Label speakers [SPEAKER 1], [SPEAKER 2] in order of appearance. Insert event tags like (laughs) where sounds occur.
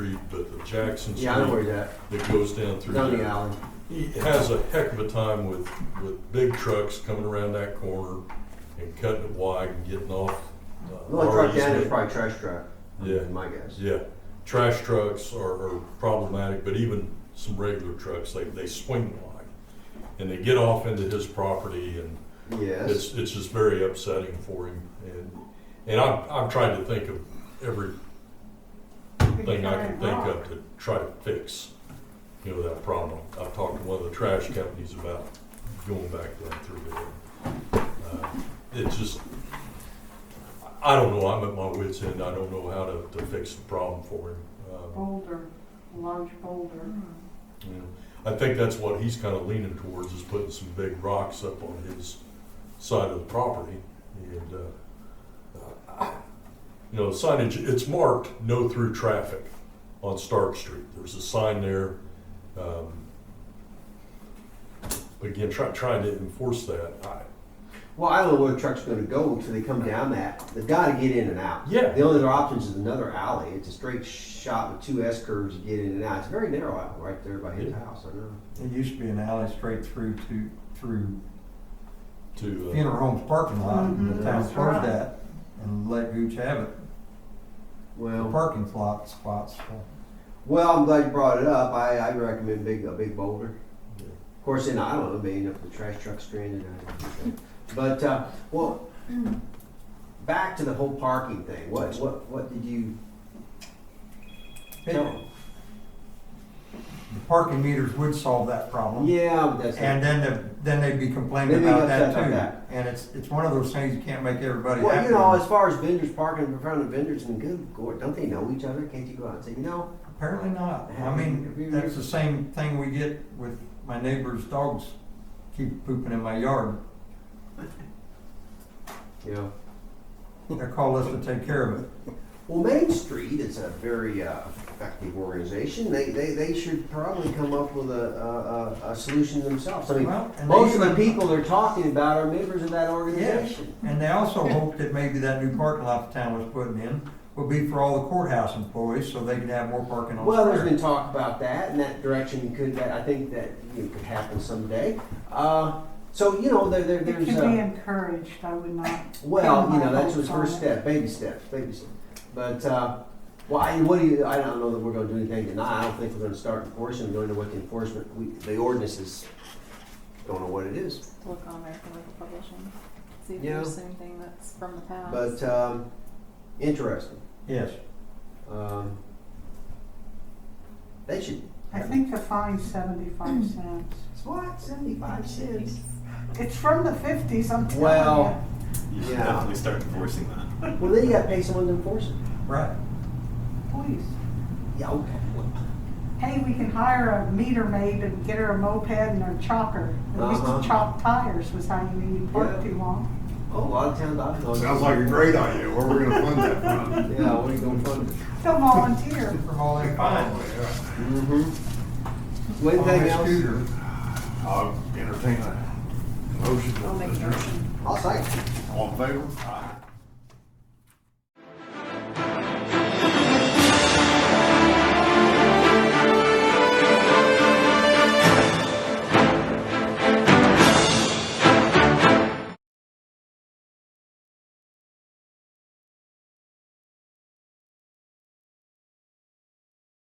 [SPEAKER 1] of Jackson
[SPEAKER 2] Yeah, I know where
[SPEAKER 1] Street
[SPEAKER 2] he's at,
[SPEAKER 1] that goes down through
[SPEAKER 2] down the
[SPEAKER 1] there.
[SPEAKER 2] alley.
[SPEAKER 1] He has a heck of a time with, with big trucks coming around that corner and cutting it wide and getting off. uh,
[SPEAKER 2] The only truck
[SPEAKER 1] our
[SPEAKER 2] down there is
[SPEAKER 1] easement.
[SPEAKER 2] probably trash truck,
[SPEAKER 1] Yeah.
[SPEAKER 2] is my guess.
[SPEAKER 1] Yeah, trash trucks are, are problematic, but even some regular trucks, they, they swing wide. And they get off into his property and
[SPEAKER 2] Yes,
[SPEAKER 1] it's, it's just very upsetting for him. And, and I've, I've tried to think of every thing I can think of to try to fix, you know, that problem. I've talked to one of the trash companies about going back down through there. Uh, It's just, I don't know, I'm at my wit's end, I don't know how to, to fix the problem for him. Um,
[SPEAKER 3] Boulder, a large boulder.
[SPEAKER 1] you know, I think that's what he's kind of leaning towards, is putting some big rocks up on his side of the property. And, uh, uh, you know, signage, it's marked no through traffic on Stark Street. There's a sign there. um, Again, try, trying to enforce that. I-
[SPEAKER 2] well, I don't know where the truck's gonna go until they come down that, they've gotta get in and out.
[SPEAKER 1] Yeah.
[SPEAKER 2] The only other options is another alley, it's a straight shot with two S curves to get in and out, it's a very narrow alley right there by his
[SPEAKER 1] Yeah.
[SPEAKER 2] house, I know.
[SPEAKER 4] It used to be an alley straight through to, through
[SPEAKER 1] To, uh,
[SPEAKER 4] funeral home's parking lot, and
[SPEAKER 3] Mhm,
[SPEAKER 4] the town
[SPEAKER 3] that's right.
[SPEAKER 4] closed that and let Gooch have it. The
[SPEAKER 2] Well,
[SPEAKER 4] parking lot spots, so
[SPEAKER 2] well, I'm glad you brought it up, I, I recommend big, a big boulder. Of course, then I don't know, maybe up the trash truck stranded, I don't know. but, uh, well, (clears throat) back to the whole parking thing, what, what, what did you
[SPEAKER 4] Hey.
[SPEAKER 2] tell 'em?
[SPEAKER 4] the parking meters would solve that problem.
[SPEAKER 2] Yeah, but that's.
[SPEAKER 4] And then, the- then they'd be complaining
[SPEAKER 2] They'd be
[SPEAKER 4] about
[SPEAKER 2] upset
[SPEAKER 4] that
[SPEAKER 2] about that.
[SPEAKER 4] too. And it's, it's one of those things you can't make everybody
[SPEAKER 2] well, you
[SPEAKER 4] happy.
[SPEAKER 2] know,
[SPEAKER 4] with.
[SPEAKER 2] as far as vendors parking in front of vendors, and good lord, don't they know each other? Can't you go out and say, you know,
[SPEAKER 4] Apparently not.
[SPEAKER 2] Yeah.
[SPEAKER 4] I mean, that's the same thing we get with my neighbor's dogs keep pooping in my yard.
[SPEAKER 2] you know,
[SPEAKER 4] They call us to take care of it.
[SPEAKER 2] well, Main Street is a very uh, effective organization. They, they they should probably come up with a a, a, a solution themselves. I mean,
[SPEAKER 4] Well, and they
[SPEAKER 2] most of the
[SPEAKER 4] even-
[SPEAKER 2] people they're talking about are members of that organization.
[SPEAKER 4] And
[SPEAKER 2] (laughs)
[SPEAKER 4] they also hope that maybe that new parking lot the town was putting in would be for all the courthouse employees, so they could have more parking on
[SPEAKER 2] Well, there's
[SPEAKER 4] the
[SPEAKER 2] been
[SPEAKER 4] square.
[SPEAKER 2] talk about that, and that direction could that I think that you know, could happen someday. Uh, so you know, there, there
[SPEAKER 3] It
[SPEAKER 2] there's.
[SPEAKER 3] should
[SPEAKER 2] uh,
[SPEAKER 3] be encouraged, I would not.
[SPEAKER 2] Well,
[SPEAKER 3] Yeah,
[SPEAKER 2] you know,
[SPEAKER 3] my
[SPEAKER 2] that's his first
[SPEAKER 3] thoughts on it.
[SPEAKER 2] step, baby steps, baby steps. But, uh, well, I, what do you, I don't know that we're gonna do anything tonight. I don't think we're gonna start enforcing, we don't know what the enforcement, we, the ordinance is, don't know what it is.
[SPEAKER 5] Look on there for local publishing. See if
[SPEAKER 2] Yeah.
[SPEAKER 5] there's anything that's from the past.
[SPEAKER 2] But, um, interesting.
[SPEAKER 4] Yes,
[SPEAKER 2] Um, they should.
[SPEAKER 3] I think the fine's
[SPEAKER 2] Hmm.
[SPEAKER 3] seventy-five cents.
[SPEAKER 2] What, seventy-five
[SPEAKER 3] (laughs)
[SPEAKER 2] cents?
[SPEAKER 3] It's from the fifties, I'm telling you.
[SPEAKER 2] Well,
[SPEAKER 6] You should
[SPEAKER 2] Yeah.
[SPEAKER 6] definitely start enforcing that.
[SPEAKER 2] well, then you gotta pay someone to enforce it.
[SPEAKER 4] right.
[SPEAKER 3] Please.
[SPEAKER 2] Yeah, okay.
[SPEAKER 3] Hey, we can hire a meter maid and get her a moped and her chopper. They used
[SPEAKER 2] Uh-huh.
[SPEAKER 3] to chop tires was how you knew you parked
[SPEAKER 2] Yeah.
[SPEAKER 3] too long.
[SPEAKER 2] Oh, a lot of towns I know.
[SPEAKER 7] Sounds like a great idea. Where we gonna fund that from?
[SPEAKER 2] Yeah, what are you gonna fund it?
[SPEAKER 3] They'll volunteer.
[SPEAKER 4] From all that fine.
[SPEAKER 7] Oh,
[SPEAKER 2] Mm-hmm.
[SPEAKER 4] On
[SPEAKER 2] Anything
[SPEAKER 4] my
[SPEAKER 2] else?
[SPEAKER 4] scooter.
[SPEAKER 7] yeah. I'll entertain a motion.
[SPEAKER 5] I'll make a motion.
[SPEAKER 2] I'll say.
[SPEAKER 7] All in favor? Aye.